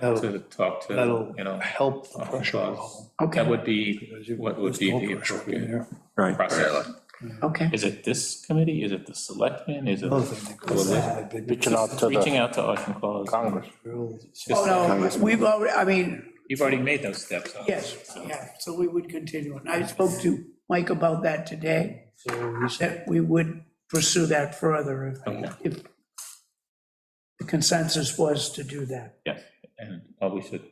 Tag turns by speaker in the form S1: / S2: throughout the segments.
S1: That'll-
S2: to talk to,
S1: That'll
S2: you know,
S1: help the
S2: uh,
S1: pressure
S2: uh,
S1: level.
S2: that
S3: Okay,
S2: would be
S1: because you've
S2: what would
S1: reduced
S2: be
S1: whole
S2: the
S1: pressure up in
S2: appropriate-
S1: there.
S4: Right.
S2: process.
S3: okay,
S5: Is it this committee? Is it the selectmen? Is it?
S1: Both of them.
S5: Well,
S1: That's a big-
S6: Reaching out to
S5: Reaching
S6: the
S5: out to Ocean Falls.
S6: Congress.
S1: real-
S3: oh, no, we've already, I mean,
S2: You've already made those steps. huh?
S3: yes, yeah, so we would continue, and I spoke to Mike about that today,
S1: So we should-
S3: that we would pursue that further if- if the consensus was to do that.
S5: Yes, and well, we should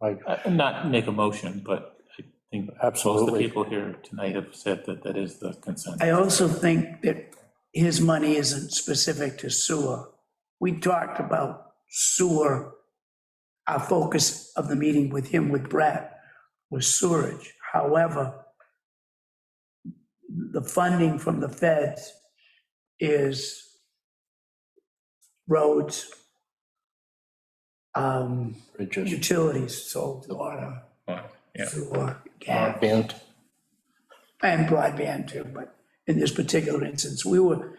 S6: Like,
S5: uh, not make a motion, but I think most of the
S6: Absolutely.
S5: people here tonight have said that that is the consent.
S3: I also think that his money isn't specific to sewer. We talked about sewer, our focus of the meeting with him, with Brett, was sewerage. However, the funding from the feds is roads, um,
S6: Bridges.
S3: utilities, so water,
S5: Uh,
S2: Fine, Yeah,
S3: sewer, gas
S6: Broadband.
S3: and broadband too, but in this particular instance, we were,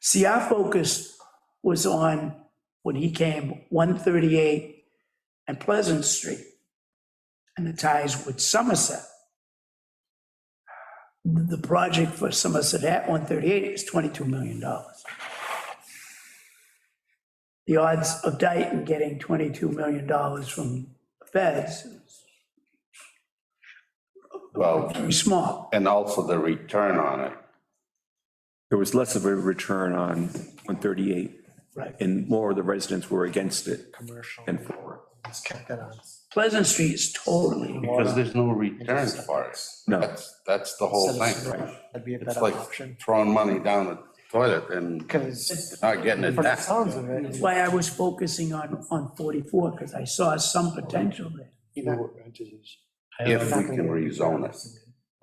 S3: see, our focus was on, when he came, 138 and Pleasant Street, and the ties with Somerset. The project for Somerset at 138 is $22 million. The odds of Dayton getting $22 million from the feds is
S7: Well,
S3: very small.
S7: and also the return on it.
S4: There was less of a return on 138,
S3: Right.
S4: and more of the residents were against it. Commercial. And for, it.
S3: Pleasant Street is totally
S7: Because there's no return for it.
S4: no,
S7: That's, that's the whole thing.
S8: That'd be a
S7: It's
S8: better
S7: like
S8: option,
S7: throwing money down the toilet and
S8: because
S7: not getting it
S8: from the
S7: back.
S8: sounds of it,
S3: That's why I was focusing on, on 44, because I saw some potential there.
S1: real entities.
S5: Um,
S7: If we can rezone it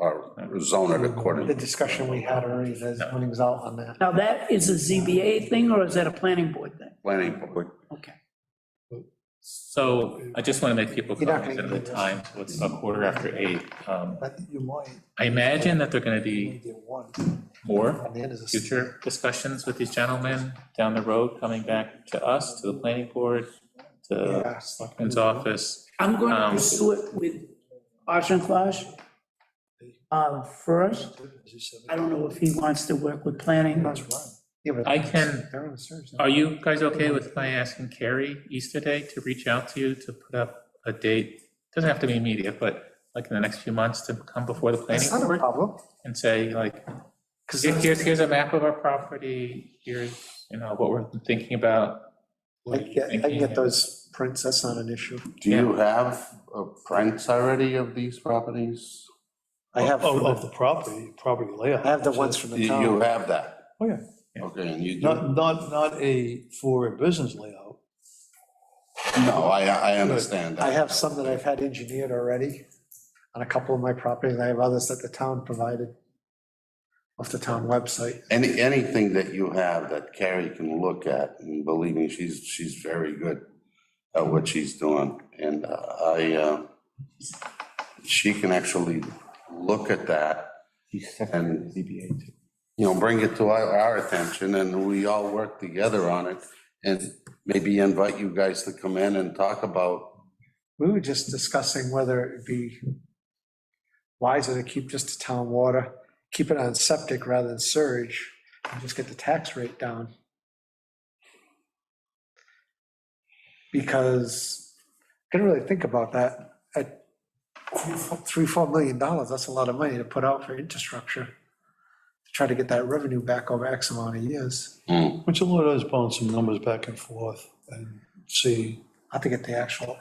S7: or zone it
S8: the
S7: according.
S8: discussion we had already, there's money's out on that.
S3: Now, that is a ZBA thing, or is that a planning board thing?
S7: Planning board.
S3: Okay.
S5: So I just want to make people
S8: You're not
S5: cognizant of
S8: gonna
S5: the time, so it's a quarter after eight. Um,
S8: But you might,
S5: I imagine that they're going to
S8: you
S5: be
S8: might get one,
S5: more
S8: and then is a
S5: future discussions with these gentlemen down the road, coming back to us, to the planning board, to
S8: yeah,
S5: Selectmen's office.
S3: I'm going to
S5: Um,
S3: pursue it with Ocean Flush uh, first. I don't know if he wants to work with planning.
S8: that's right. Yeah, but
S5: I can-
S8: They're on the surge.
S5: Are you guys okay with my asking Carrie Easterday to reach out to you to put up a date? Doesn't have to be immediate, but like in the next few months to come before the planning
S8: That's not a
S5: board
S8: problem,
S5: and say like,
S8: because
S5: here- here's, here's a map of our property, here's, you know, what we're thinking about.
S8: I
S5: what
S8: can
S5: you're
S8: get, I can
S5: thinking,
S8: get those prints, that's not an issue.
S7: Do you have uh, prints already of these properties?
S8: I have,
S1: Of, Oh, of
S8: I
S1: the property, property layout.
S8: have the ones from
S7: You
S8: the
S7: you
S8: town.
S7: have that?
S1: Oh, yeah.
S7: Okay, and you do?
S1: Not, not, not a, for a business layout.
S7: No, I, I understand that.
S8: I have some that I've had engineered already on a couple of my properties, I have others that the town provided off the town website.
S7: Any, anything that you have that Carrie can look at, and believe me, she's, she's very good at what she's doing. And uh, I, uh, she can actually look at that and, you know, bring it to our, our attention, and we all work together on it. And maybe invite you guys to come in and talk about,
S8: We were just discussing whether it'd be wiser to keep just the town water, keep it on septic rather than surge, and just get the tax rate down. Because, gonna really think about that, at three, four million dollars, that's a lot of money to put out for infrastructure, to try to get that revenue back over X amount of years.
S7: Hmm,
S1: Which a lot of us bounce some numbers back and forth and see,
S8: I have to get the actual,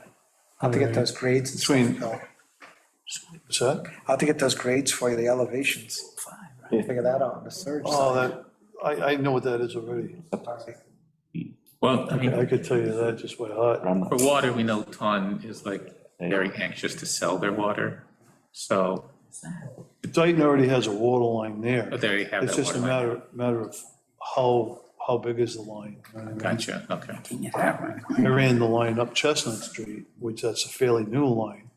S8: I have to get those grades and
S1: Between-
S8: stuff, though.
S1: what's that?
S8: I'll have to get those grades for you, the elevations. Figure that out, the surge.
S1: Oh, that, I, I know what that is already.
S5: Well, I
S1: I
S5: mean,
S1: could tell you that just by heart.
S5: for water, we know Ton is like very anxious to sell their water. So
S1: Dayton already has a water line there.
S5: but Oh, there you have that water.
S1: It's just a
S5: line.
S1: matter, matter of how, how big is the line? you know what I mean?
S5: Gotcha, okay.
S1: I ran the line up Chestnut Street, which that's a fairly new line.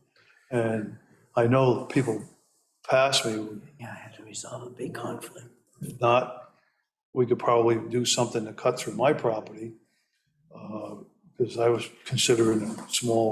S1: And I know people past me would
S3: Yeah, I had to resolve a big conflict.
S1: not, we could probably do uh, something to cut through my property. Because I was considering a small